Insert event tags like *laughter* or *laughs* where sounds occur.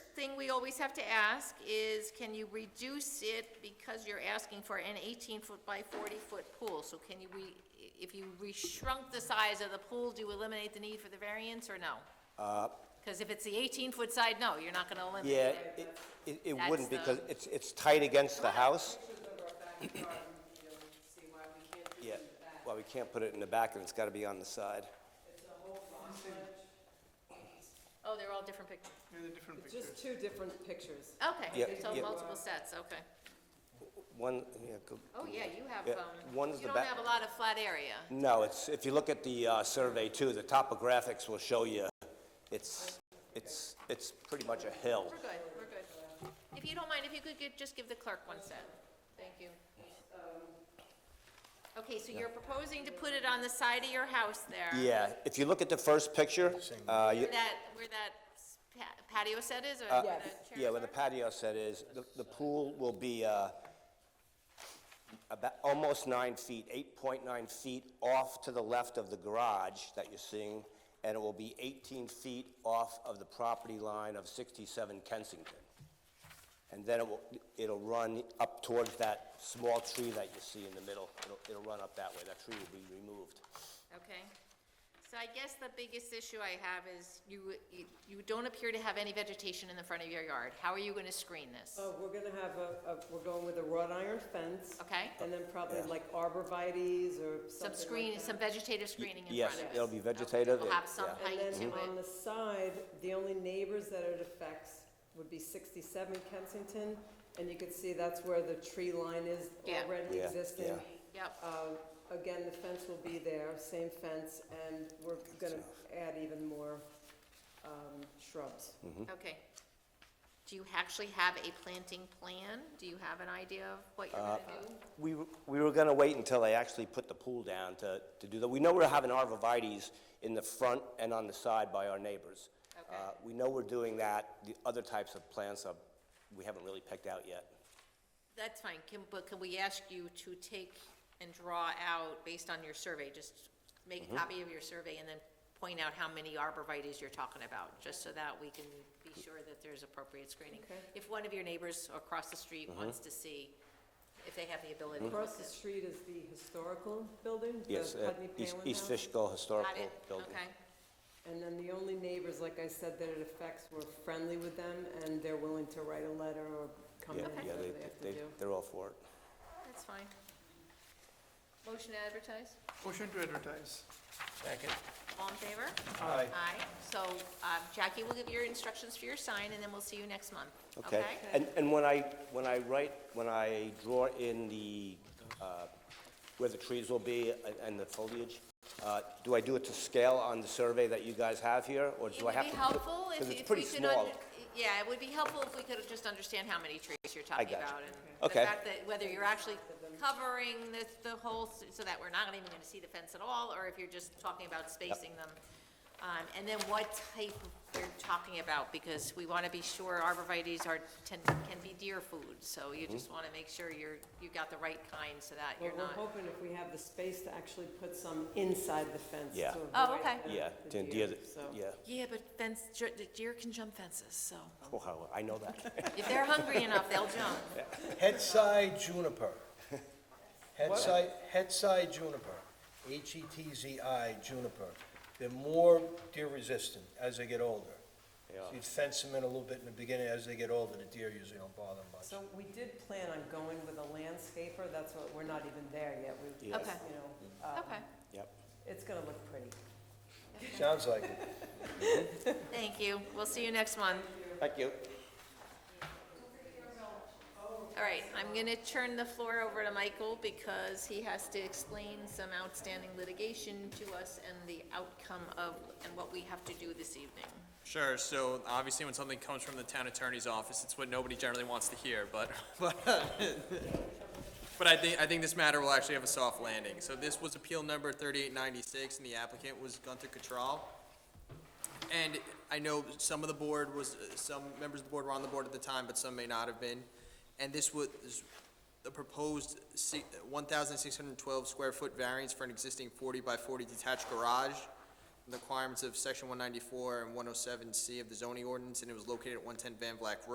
thing we always have to ask is, can you reduce it because you're asking for an eighteen-foot by forty-foot pool? So can you, re- if you reshrunk the size of the pool, do you eliminate the need for the variance or no? Because if it's the eighteen-foot side, no, you're not gonna eliminate Uh, Yeah, it. it, it- it That's wouldn't the- because it's, it's tight against the house. Yeah, well, we can't put it in the back and it's gotta be on the side. Oh, they're all different pictures. Just two different pictures. Yeah, Okay, so yeah. multiple sets, okay. One, yeah, go. Oh, yeah, you have, Yeah, um, one's you the don't back- have a lot of flat area. No, it's, if you look at the, uh, survey too, the topographics will show you, it's, it's, it's pretty much a hill. We're good, we're good. If you don't mind, if you could gi- just give the clerk one set. Thank you. Okay, so you're proposing to put it on the side of your house there? Yeah, if you look at the first picture, uh, you, Where that, where that s- pa- patio set is, or where Yes. the Uh, yeah, chairs where the are? patio set is, the, the pool will be, uh, about, almost nine feet, eight point nine feet off to the left of the garage that you're seeing, and it will be eighteen feet off of the property line of sixty-seven Kensington. And then it will, it'll run up towards that small tree that you see in the middle, it'll, it'll run up that way, that tree will be removed. Okay. So I guess the biggest issue I have is you, you- you don't appear to have any vegetation in the front of your yard. How are you gonna screen this? So we're gonna have a, a, we're going with a wrought iron fence. Okay. And then probably like arborvitae's or Some something screen, like some that. vegetative screening in Yes, front of it? it'll be vegetative, It'll have some yeah. height And to then on it. the side, the only neighbors that it affects would be sixty-seven Kensington, and you could see that's where the tree line is Yeah. already Yeah, existing. yeah. Yep, Um, Again, the fence will be there, same fence, and we're gonna add even more um, shrubs. okay. Do you actually have a planting plan? Do you have an idea of what you're gonna do? We, were- we were gonna wait until they actually put the pool down to, to do that. We know we're having arborvitae's in the front and on the side by our neighbors. Okay. Uh, We know we're doing that. The other types of plants are, we haven't really picked out yet. That's fine, can, but can we ask you to take and draw out, based on your survey, just make a copy of your survey and then point out how many arborvitae's you're talking about, just so that we can be sure that there's appropriate screening. Okay. If one of your neighbors across the street wants to see if they have the ability to look Across the at- street is the historical building, the Yes, uh, Putney East, Palin East House. Fishkill Got Historical it? Building. Okay, And then the only neighbors, like I said, that it affects, we're friendly with them, and they're willing to write a letter or come in, Yeah, yeah, whatever they, they have to they, do. they're all for it. that's fine. Motion to advertise? Motion to advertise. All in favor? Aye. Aye. So um, Jackie will give your instructions for your sign, and then we'll see you next month. Okay, and, and when I, when I write, when I draw in the, uh, where the trees will be and- and the foliage, uh, do I do it to scale on the survey that you guys have here, or It do I would have be to? helpful if Because it's if we pretty could, un- small. yeah, it would be helpful if we could just understand how many trees you're talking gotcha. about. and Okay. The fact that whether you're actually covering the, the whole, s- so that we're not even gonna see the fence at all, or if you're just talking about spacing them. Um, And then what type you're talking about, because we wanna be sure arborvitae's are, can, can be deer food. So Mm-hmm. you just wanna make sure you're, you got the right kind so that But you're we're not. hoping if we have the space to actually put some inside the fence. Yeah. to Oh, avoid okay. the- Yeah, the then the deer, other, so. yeah, Yeah, but fence, ju- the deer can jump fences, so Wow, Oh, I *laughs* know that. if they're hungry enough, they'll jump. Hetsai juniper. Hetsai, Hetsai juniper, E H-E-T-Z-I juniper. They're more deer resistant as they get older. Yeah. So You'd fence them in a little bit in the beginning, as they get older, the deer usually don't bother them much. So we did plan on going with a landscaper, that's what, we're not even there yet, we, you Yes. know, Okay. um, Okay, Yep. it's gonna look pretty. Sounds like it. thank you. We'll see you next month. Thank you. All right, I'm going to turn the floor over to Michael because he has to explain some outstanding litigation to us and the outcome of, and what we have to do this evening. Sure. So obviously, when something comes from the town attorney's office, it's what nobody generally wants to hear. But *laughs* but but I think I think this matter will actually have a soft landing. So this was appeal number 3896, and the applicant was Gunther Cattrall. And I know some of the board was some members of the board were on the board at the time, but some may not have been. And this was the proposed si- 1,612 square foot variance for an existing 40 by 40 detached garage the requirements of section one ninety-four and one oh seven C of the zoning ordinance, and it was located at one ten Van Black Road.